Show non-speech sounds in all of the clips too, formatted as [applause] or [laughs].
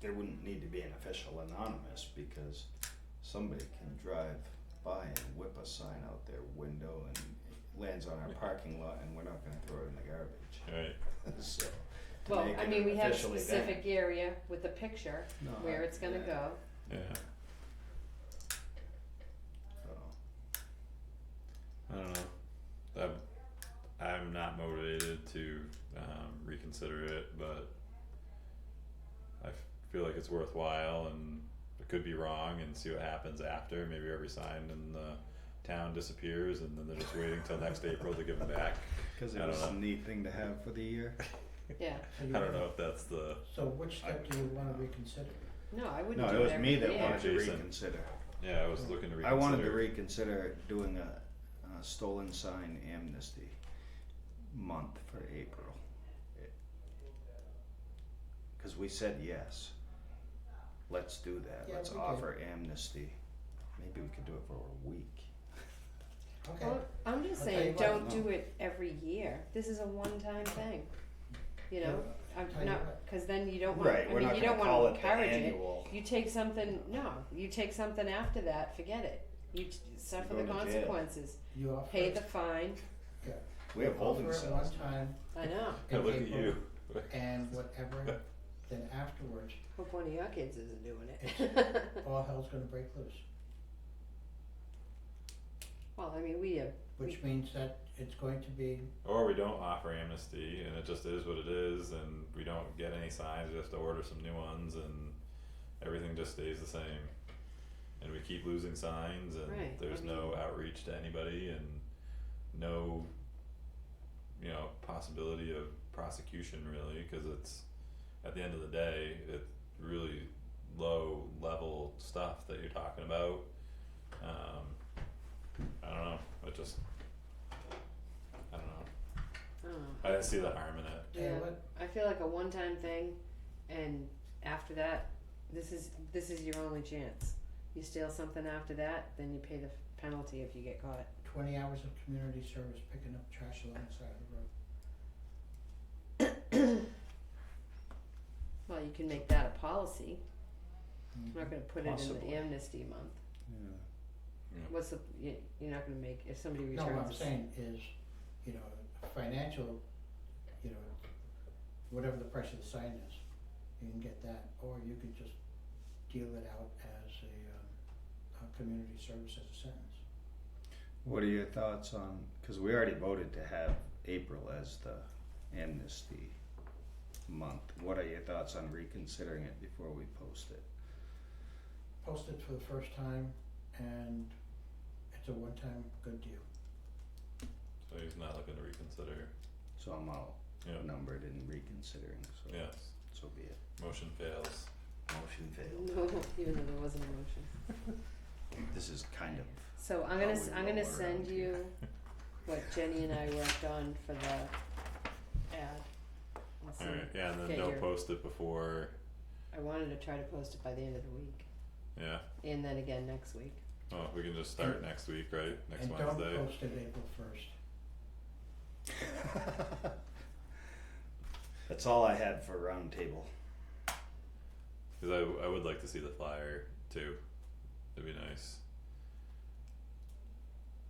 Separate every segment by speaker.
Speaker 1: there wouldn't need to be an official anonymous because somebody can drive by and whip a sign out their window and it lands on our parking lot and we're not gonna throw it in the garbage, [laughs]
Speaker 2: Right.
Speaker 3: [laughs]
Speaker 1: so. to
Speaker 3: Well,
Speaker 1: make
Speaker 3: I
Speaker 1: it
Speaker 3: mean,
Speaker 1: an
Speaker 3: we have a
Speaker 1: official event-
Speaker 3: specific area with the picture
Speaker 1: No,
Speaker 3: where
Speaker 1: I-
Speaker 3: it's gonna
Speaker 1: yeah,
Speaker 3: go.
Speaker 2: Yeah.
Speaker 1: so.
Speaker 2: I don't know. I'm, I'm not motivated to um, reconsider it, but I f- feel like it's worthwhile and it could be wrong and see what happens after. Maybe every sign in the town disappears and then they're just waiting till next April to give them back.
Speaker 1: Cause
Speaker 2: I
Speaker 1: it
Speaker 2: don't
Speaker 1: was a
Speaker 2: know.
Speaker 1: neat thing to have for the year.
Speaker 3: Yeah,
Speaker 4: So you
Speaker 2: I don't
Speaker 4: wanna-
Speaker 2: know if that's the.
Speaker 4: So which step do you wanna reconsider?
Speaker 3: no, I wouldn't
Speaker 1: No,
Speaker 3: do
Speaker 1: it was
Speaker 3: every
Speaker 1: me that
Speaker 3: year.
Speaker 1: wanted to
Speaker 2: Jason.
Speaker 1: reconsider.
Speaker 2: Yeah, I was looking to reconsider.
Speaker 1: I wanted to reconsider doing a, a stolen sign amnesty month for April. Cause we said yes. Let's do that.
Speaker 4: Yeah,
Speaker 1: Let's
Speaker 4: we can.
Speaker 1: offer amnesty. Maybe we could do it for a week.
Speaker 4: Okay,
Speaker 3: Well, I'm just
Speaker 4: I'll tell you
Speaker 3: saying,
Speaker 4: what,
Speaker 3: don't
Speaker 1: no.
Speaker 3: do it every year, this is a one-time thing, you know, I'm
Speaker 4: Tell you
Speaker 3: not,
Speaker 4: what.
Speaker 3: cause then you don't want,
Speaker 1: Right,
Speaker 3: I
Speaker 1: we're
Speaker 3: mean,
Speaker 1: not
Speaker 3: you
Speaker 1: gonna
Speaker 3: don't wanna
Speaker 1: call it
Speaker 3: encourage it.
Speaker 1: the annual.
Speaker 3: You take something, no, you take something after that, forget it, you t- suffer
Speaker 1: go
Speaker 3: the
Speaker 1: to jail.
Speaker 3: consequences,
Speaker 4: you offer
Speaker 3: pay the
Speaker 4: it,
Speaker 3: fine,
Speaker 4: yeah.
Speaker 1: We have
Speaker 4: You
Speaker 1: holding
Speaker 4: offer it
Speaker 1: cells.
Speaker 4: one
Speaker 2: [laughs]
Speaker 4: time
Speaker 3: I know,
Speaker 2: Hey,
Speaker 4: in
Speaker 2: look at you.
Speaker 4: April and whatever,
Speaker 2: [laughs]
Speaker 4: then afterwards,
Speaker 3: hope one of your kids isn't doing it.
Speaker 4: It's- all hell's gonna break loose.
Speaker 3: [laughs] Well, I mean, we have,
Speaker 4: Which means that it's going to be,
Speaker 2: Or we don't offer amnesty and it just is what it is and we don't get any signs, we have to order some new ones and everything just stays the same. And we keep losing signs and
Speaker 3: Right, I
Speaker 2: there's no
Speaker 3: mean-
Speaker 2: outreach to anybody and no you know, possibility of prosecution really, cause it's at the end of the day, it's really low level stuff that you're talking about. Um I don't know, it just I don't know.
Speaker 3: I don't know.
Speaker 2: I didn't see the harm in it.
Speaker 4: tell you
Speaker 3: Yeah.
Speaker 4: what,
Speaker 3: I feel like a one-time thing, and after that, this is this is your only chance. You steal something after that, then you pay the penalty if you get caught.
Speaker 4: twenty hours of community service picking up trash along the side of the road.
Speaker 3: Well, you can make that a policy.
Speaker 4: Mm.
Speaker 3: I'm not going to put it in
Speaker 1: Possibly.
Speaker 3: the amnesty month.
Speaker 1: Yeah.
Speaker 3: What's the? You, you're not going to make if somebody
Speaker 4: No,
Speaker 3: returns.
Speaker 4: what I'm
Speaker 3: a-
Speaker 4: saying is, you know, financial, you know, whatever the price of the sign is, you can get that, or you could just deal it out as a, um, a community service as a sentence.
Speaker 1: What are your thoughts on, cause we already voted to have April as the amnesty month. What are your thoughts on reconsidering it before we post it?
Speaker 4: Post it for the first time, and it's a one-time good deal.
Speaker 2: So he's not looking to reconsider.
Speaker 1: So I'm
Speaker 2: Yeah.
Speaker 1: outnumbered in reconsidering, so,
Speaker 2: Yes.
Speaker 1: so be it.
Speaker 2: Motion fails.
Speaker 1: Motion failed.
Speaker 3: [laughs] No, even though there wasn't a motion.
Speaker 1: This is kind [laughs] of,
Speaker 3: So I'm gonna
Speaker 1: How
Speaker 3: s-
Speaker 1: we
Speaker 3: I'm gonna
Speaker 1: roll around
Speaker 3: send you
Speaker 1: here.
Speaker 3: [laughs] what Jenny and I worked on for the ad. I'll send-
Speaker 2: Alright, yeah, and then
Speaker 3: figure.
Speaker 2: don't post it before,
Speaker 3: I wanted to try to post it by the end of the week,
Speaker 2: yeah,
Speaker 3: and then again next week.
Speaker 2: oh, we can just start next week, right, next
Speaker 4: And
Speaker 2: Wednesday,
Speaker 4: don't post it April first.
Speaker 1: that's all I had for roundtable.
Speaker 2: cause I I would like to see the flyer too, it'd be nice.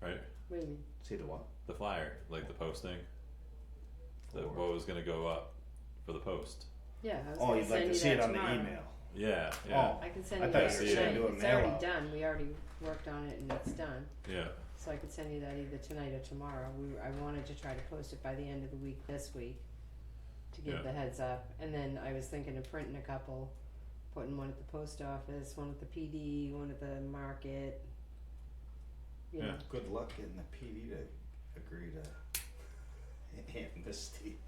Speaker 2: Right,
Speaker 3: What do you mean?
Speaker 1: See the what?
Speaker 2: the flyer, like the posting, the
Speaker 1: Or-
Speaker 2: what was gonna go up for the post,
Speaker 3: Yeah, I was
Speaker 1: Oh,
Speaker 3: gonna
Speaker 1: you'd
Speaker 3: send
Speaker 1: like
Speaker 3: you
Speaker 1: to see
Speaker 3: that
Speaker 1: it on the
Speaker 3: tomorrow.
Speaker 1: email.
Speaker 2: yeah, yeah,
Speaker 1: Oh.
Speaker 3: I can send
Speaker 1: I
Speaker 3: you
Speaker 1: thought
Speaker 3: that
Speaker 2: you said you
Speaker 3: tonight.
Speaker 1: do a
Speaker 3: it's
Speaker 1: mail
Speaker 3: already
Speaker 1: out.
Speaker 3: done. We already worked on it and it's done.
Speaker 2: yeah,
Speaker 3: So I could send you that either tonight or tomorrow. We I wanted to try to post it by the end of the week this week to give
Speaker 2: Yeah.
Speaker 3: the heads up. And then I was thinking of printing a couple, putting one at the post office, one at the PD, one at the market. You
Speaker 2: Yeah.
Speaker 3: know,
Speaker 1: Good luck getting the PD to agree to [laughs] amnesty.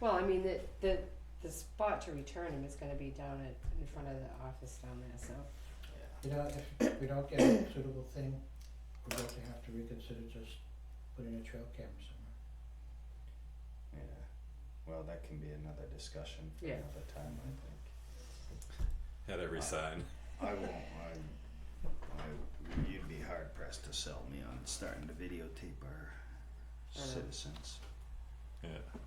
Speaker 3: Well, I mean, the, the, the spot to return him is gonna be down at, in front of the office down there, so.
Speaker 4: You know, if we don't get a suitable thing, we're going to have to reconsider just putting a trail camera somewhere.
Speaker 1: Yeah, well, that can be another discussion for
Speaker 3: Yeah.
Speaker 1: another time, I think.
Speaker 2: had every
Speaker 1: Uh,
Speaker 2: sign,
Speaker 1: I won't, I, I, you'd be hard pressed to sell me on starting to videotape our
Speaker 3: I know.
Speaker 1: citizens.
Speaker 2: yeah,